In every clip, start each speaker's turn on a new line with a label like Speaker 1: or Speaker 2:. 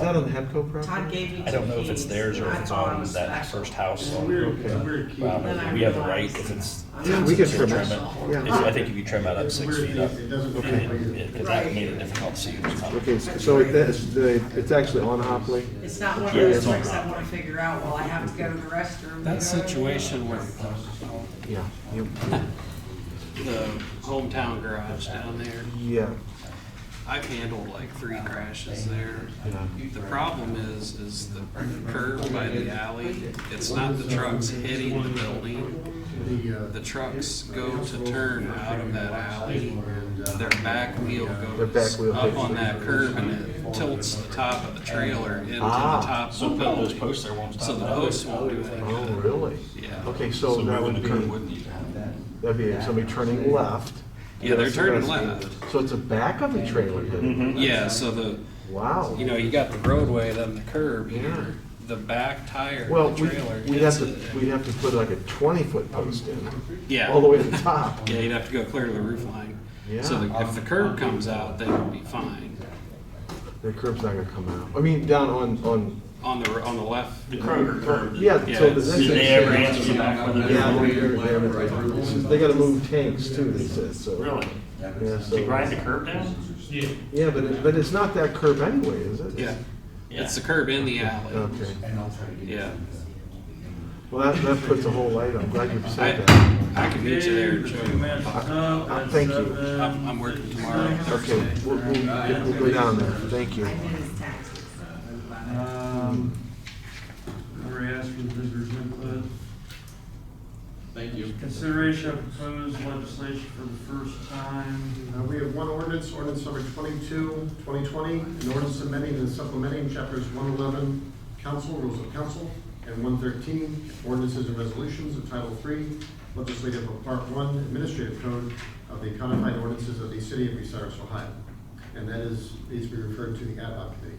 Speaker 1: that on the Hempco property?
Speaker 2: Todd gave me two
Speaker 3: I don't know if it's
Speaker 2: keys,
Speaker 3: theirs or
Speaker 2: and
Speaker 3: if
Speaker 2: I
Speaker 3: it's
Speaker 2: thought it
Speaker 3: on
Speaker 2: was
Speaker 3: that
Speaker 2: special.
Speaker 3: first house.
Speaker 4: It's a
Speaker 3: on-
Speaker 4: weird, it's a weird key.
Speaker 3: Well,
Speaker 2: Then I
Speaker 3: We have the right
Speaker 2: realized.
Speaker 3: if it's.
Speaker 1: Yeah, we
Speaker 3: if
Speaker 1: could
Speaker 3: it's
Speaker 1: trim
Speaker 3: trim
Speaker 1: it, yeah.
Speaker 3: If- I think if you trim that up
Speaker 4: It's a
Speaker 3: six
Speaker 4: weird
Speaker 3: feet
Speaker 4: key.
Speaker 3: up,
Speaker 4: It doesn't look
Speaker 3: it-
Speaker 4: like
Speaker 3: it- it- 'cause that
Speaker 2: Right.
Speaker 3: made it difficult to see who's on.
Speaker 1: Okay, so it- that's, the- it's actually on Hopley?
Speaker 2: It's not one of
Speaker 3: Yeah,
Speaker 2: those
Speaker 3: it's on
Speaker 2: tricks I
Speaker 3: property.
Speaker 2: wanna figure out while I have to go to the restroom.
Speaker 5: That situation with
Speaker 1: Yeah. you-
Speaker 5: the hometown garage down there,
Speaker 1: Yeah.
Speaker 5: I've handled like three crashes there.
Speaker 1: Yeah.
Speaker 5: The problem is, is the curb by the alley, it's not the trucks hitting the building.
Speaker 4: The, uh,
Speaker 5: The trucks go to turn out of that alley,
Speaker 4: and, uh,
Speaker 5: their back wheel
Speaker 1: Their
Speaker 5: goes
Speaker 1: back wheel
Speaker 5: up
Speaker 1: hits
Speaker 5: on
Speaker 1: it.
Speaker 5: that curb and it tilts the top of the trailer into the
Speaker 1: Ah.
Speaker 5: top
Speaker 3: So
Speaker 5: of the
Speaker 3: those
Speaker 5: building.
Speaker 3: posts there won't stop.
Speaker 5: So the
Speaker 3: that.
Speaker 5: posts won't do
Speaker 1: Oh,
Speaker 5: that.
Speaker 1: really?
Speaker 5: Yeah.
Speaker 1: Okay, so that
Speaker 3: moving
Speaker 1: would
Speaker 3: the
Speaker 1: be,
Speaker 3: curb Wouldn't need to have that.
Speaker 1: that'd be somebody turning left.
Speaker 5: Yeah, they're
Speaker 1: That's the
Speaker 5: turning
Speaker 1: rest.
Speaker 5: left.
Speaker 1: So it's the back of the trailer hitting?
Speaker 3: Mm-hmm.
Speaker 5: Yeah, so the,
Speaker 1: Wow.
Speaker 5: you know, you got the roadway, then the curb
Speaker 1: Yeah.
Speaker 5: here, the back tire, of
Speaker 1: Well,
Speaker 5: the
Speaker 1: we-
Speaker 5: trailer.
Speaker 1: we'd
Speaker 5: hits
Speaker 1: have to,
Speaker 5: it.
Speaker 1: we'd have to put like a twenty-foot post in,
Speaker 5: Yeah.
Speaker 1: all the way to the top.
Speaker 5: Yeah, you'd have to go clear to the roof line. So
Speaker 1: Yeah.
Speaker 5: the- if the curb comes out, then it'll be fine.
Speaker 1: The curb's not gonna come out. I mean, down on, on,
Speaker 5: On the, on the left.
Speaker 3: The curb, curb.
Speaker 1: yeah,
Speaker 5: Yeah,
Speaker 1: so the
Speaker 5: it's-
Speaker 1: next
Speaker 3: Do
Speaker 1: thing.
Speaker 3: they ever answer the back one?
Speaker 1: Yeah, they're- they're- they're- they're- they gotta move tanks too, they said, so.
Speaker 3: Really?
Speaker 1: Yeah,
Speaker 3: To grind the
Speaker 1: so,
Speaker 3: curb down?
Speaker 1: yeah, but, it- but it's not that curb anyway, is it?
Speaker 5: Yeah, it's the curb in the alley.
Speaker 1: Okay.
Speaker 5: Yeah.
Speaker 1: Well, that, that puts a whole light on. I'm glad you
Speaker 5: I,
Speaker 1: said that.
Speaker 5: I can meet you there, Joe.
Speaker 1: Uh, Thank you.
Speaker 5: I'm, I'm working tomorrow,
Speaker 1: Okay,
Speaker 5: Thursday.
Speaker 1: we'll, we'll, we'll go down there. Thank you.
Speaker 2: I did his taxes.
Speaker 6: Um, Already asked for the visitors input.
Speaker 7: Thank you.
Speaker 6: Consideration of proposed legislation for the first time.
Speaker 4: Uh, We have one ordinance, ordinance number 22, 2020, an ordinance amending and supplementing chapters 111, council, rules of council, and 113, ordinances and resolutions of Title III, legislative of Part 1, administrative code of the codified ordinances of the city of Bucyrus, Ohio. And that is, needs to be referred to the ad hoc committee.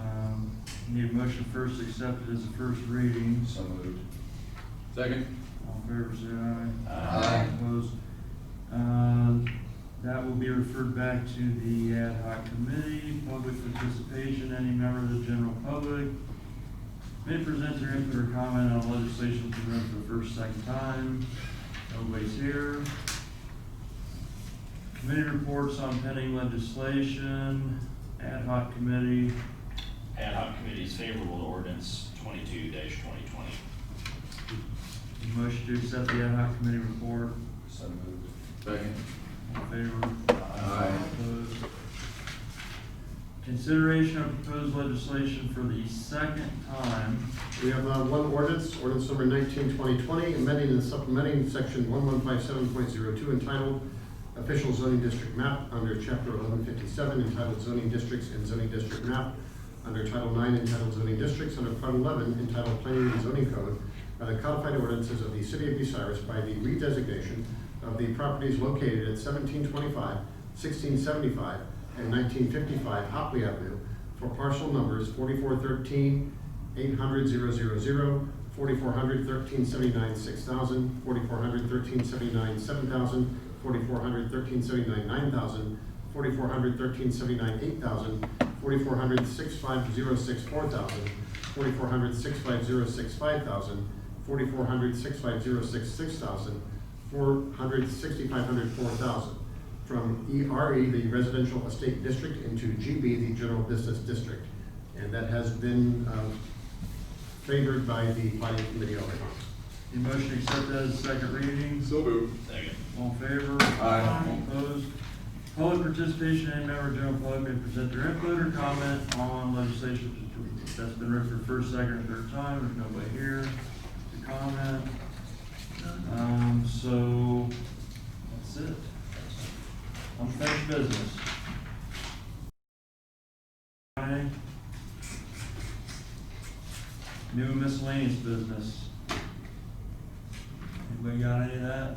Speaker 6: Um, Need a motion first accepted as a first reading.
Speaker 7: So moved. Second?
Speaker 6: All in favor, say aye.
Speaker 7: Aye.
Speaker 6: Opposed? Uh, That will be referred back to the ad hoc committee, public participation, any member of the general public may present their input or comment on legislation to run for the first, second time. Nobody's here. Committee reports on pending legislation, ad hoc committee,
Speaker 3: Ad hoc committee is favorable to ordinance twenty-two twenty twenty.
Speaker 6: motion to accept the ad hoc committee report,
Speaker 7: So moved. Second?
Speaker 6: all in favor?
Speaker 7: Aye.
Speaker 6: Opposed? Consideration of proposed legislation for the second time.
Speaker 4: We have uh, one ordinance, ordinance number 19, 2020, amending and supplementing section 1157.02 entitled Official Zoning District Map under Chapter 1157 entitled Zoning Districts and Zoning District Map, under Title 9 entitled Zoning Districts, under Part 11 entitled Planning and Zoning Code, by the codified ordinances of the City of Bucyrus by the redesignation of the properties located at 1725, 1675, and 1955 Hopley Avenue for parcel numbers 4413, 800, 000, 4400, 1379, 6000, 4400, 1379, 7000, 4400, 1379, 9000, 4400, 1379, 8000, 4400, 6506, 4000, 4400, 6506, 5000, 4400, 6506, 6000, 400, 6500, 4000. From ERE, the Residential Estate District, into GB, the General Business District. And that has been uh, favored by the planning committee already.
Speaker 6: The motion accepted as a second reading.
Speaker 7: So moved.
Speaker 3: Second.
Speaker 6: All in favor?
Speaker 7: Aye.
Speaker 6: All Opposed? Public participation, any member of the general public may present their input or comment on legislation that's been read for first, second, or third time. There's nobody here to comment. Um, so, that's it. Unfinished business. Okay. New and miscellaneous business. Anybody got any of that?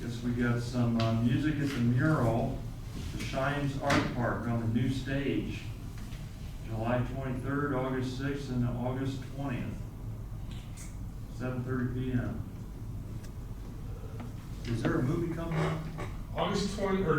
Speaker 6: Guess we got some, uh, music at the mural, the Shines Art Park on the new stage. July twenty-third, August sixth, and August twentieth. Seven thirty P M. Is there a movie coming up?
Speaker 8: August twenty, or